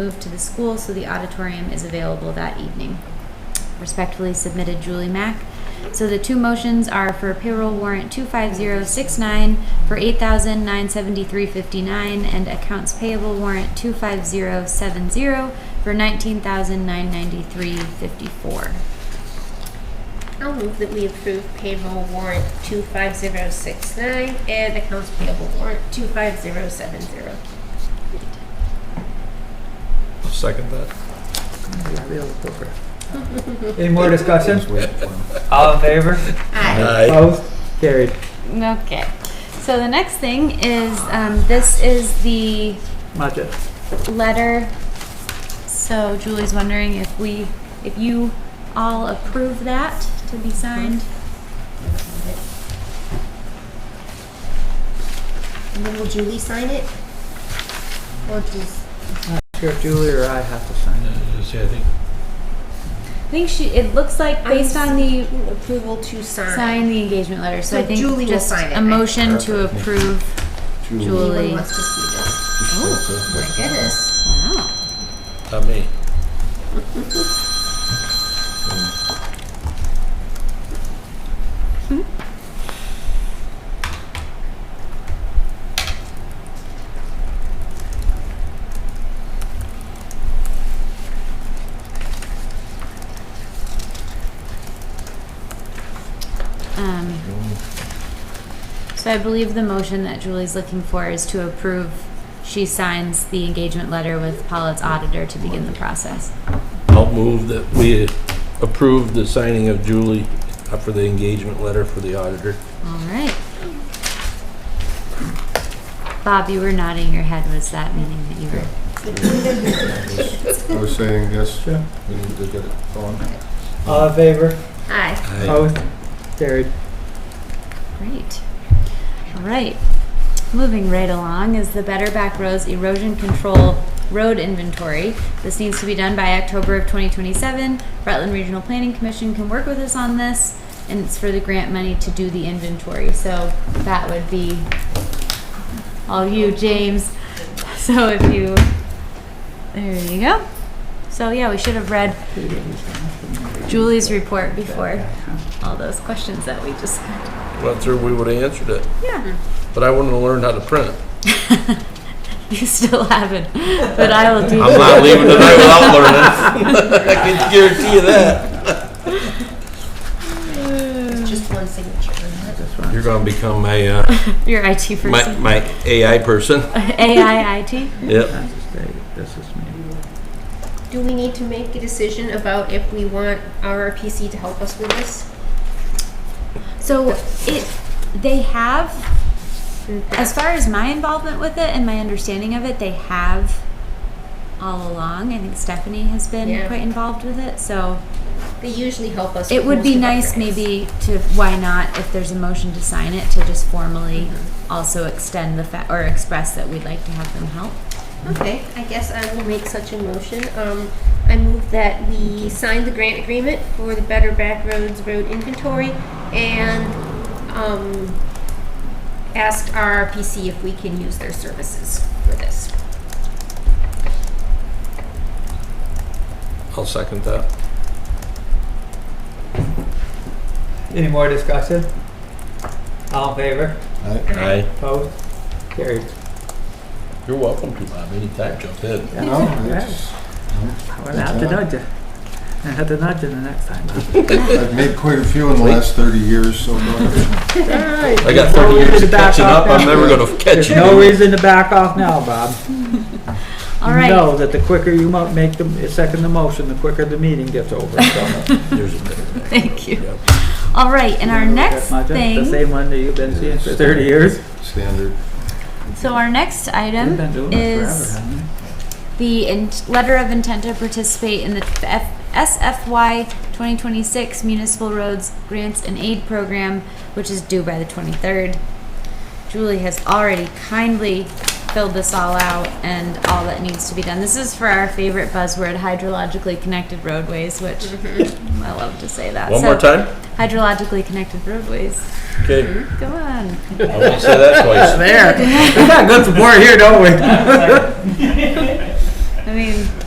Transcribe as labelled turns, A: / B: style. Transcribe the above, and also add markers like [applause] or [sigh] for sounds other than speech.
A: moved to the school, so the auditorium is available that evening. Respectfully submitted, Julie Mack. So the two motions are for payroll warrant 25069 for 8973.59 and accounts payable warrant 25070 for 19993.54.
B: I'll move that we approve payroll warrant 25069 and accounts payable warrant 25070.
C: I'll second that.
D: [laughs] Any more discussion? All in favor?
B: Aye.
C: Aye.
D: Opposed? Carried.
A: Okay. So the next thing is um, this is the
D: Budget.
A: letter. So Julie's wondering if we, if you all approve that to be signed.
B: And then will Julie sign it? Or does...
D: Sure, Julie or I have to sign it.
C: See, I think
A: I think she, it looks like based on the,
B: Approval to sign.
A: sign the engagement letter, so I
B: So
A: think
B: Julie will
A: just
B: sign it,
A: a
B: right?
A: motion to approve
B: Anyone
A: Julie.
B: wants to see this? Oh, my goodness.
A: Wow.
C: not uh, me.
A: Um, So I believe the motion that Julie's looking for is to approve, she signs the engagement letter with Pollitt's auditor to begin the process.
C: I'll move that we approve the signing of Julie uh, for the engagement letter for the auditor.
A: All right. Bob, you were nodding your head. Was that meaning that you were?
E: I was saying, yes,
D: Sure.
E: we need to get it on.
D: All in favor?
B: Aye.
C: Aye.
D: Opposed? Carried.
A: Great. All right. Moving right along is the Better Back Roads Erosion Control Road Inventory. This needs to be done by October of 2027. Rutland Regional Planning Commission can work with us on this, and it's for the grant money to do the inventory. So that would be all you, James. So if you, there you go. So yeah, we should have read Julie's report before all those questions that we just had.
C: Went through, we would have answered it,
A: Yeah.
C: but I wouldn't have learned how to print it.
A: You still haven't, but I will do.
C: I'm not leaving tonight without learning. [laughs] I can guarantee you that.
B: Just one signature. on that.
C: You're gonna become my, uh,
A: Your IT
C: my,
A: [laughs] person.
C: my AI person.
A: AI IT?
C: Yep.
D: This is me.
B: Do we need to make a decision about if we want RRPC to help us with this?
A: So it, they have, as far as my involvement with it and my understanding of it, they have all along. I think Stephanie has been
B: Yeah.
A: quite involved with it, so
B: They usually help us.
A: it
B: with
A: would
B: most
A: be
B: of our
A: nice
B: grants.
A: maybe to, why not, if there's a motion to sign it, to just formally also extend the, fa- or express that we'd like to have them help.
B: Okay, I guess I will make such a motion. Um, I move that we sign the grant agreement for the Better Back Roads Road Inventory and, um, ask RRPC if we can use their services for this.
C: I'll second that.
D: Any more discussion? All in favor?
E: I-
D: Opposed? Carried.
C: You're welcome to, Bob, anytime, jump in.
E: No, it's,
D: I'm gonna have to nudge you. I have to nudge you the next time.
E: I've made quite a few in the last thirty years, so. uh, no.
C: [laughs] I got
D: No
C: thirty years
D: reason
C: of
D: to back
C: catching
D: off
C: up, I'm
D: now.
C: never gonna catch
D: There's
C: you.
D: no reason to back off now, Bob.
A: All right.
D: Know that the quicker you mo- make the, second the motion, the quicker the meeting
A: [laughs]
D: gets over. So,
C: There's a better way.
A: Thank you.
C: Yep.
A: All right, and our next
D: that's my- The
A: thing,
D: same one that you've been seeing for thirty years.
E: Standard.
A: so our next
D: You've been
A: item
D: doing it forever,
A: is
D: haven't you?
A: the in- letter of intent to participate in the F- SFY 2026 Municipal Roads Grants and Aid Program, which is due by the 23rd. Julie has already kindly filled this all out and all that needs to be done. This is for our favorite buzzword, hydrologically connected roadways, which I love to say that.
C: One
A: So,
C: more time?
A: Hydrologically connected roadways.
C: Okay,
A: Go on.
C: I won't
A: [laughs]
C: say that twice.
D: There. We got good support here, don't we?
A: I mean.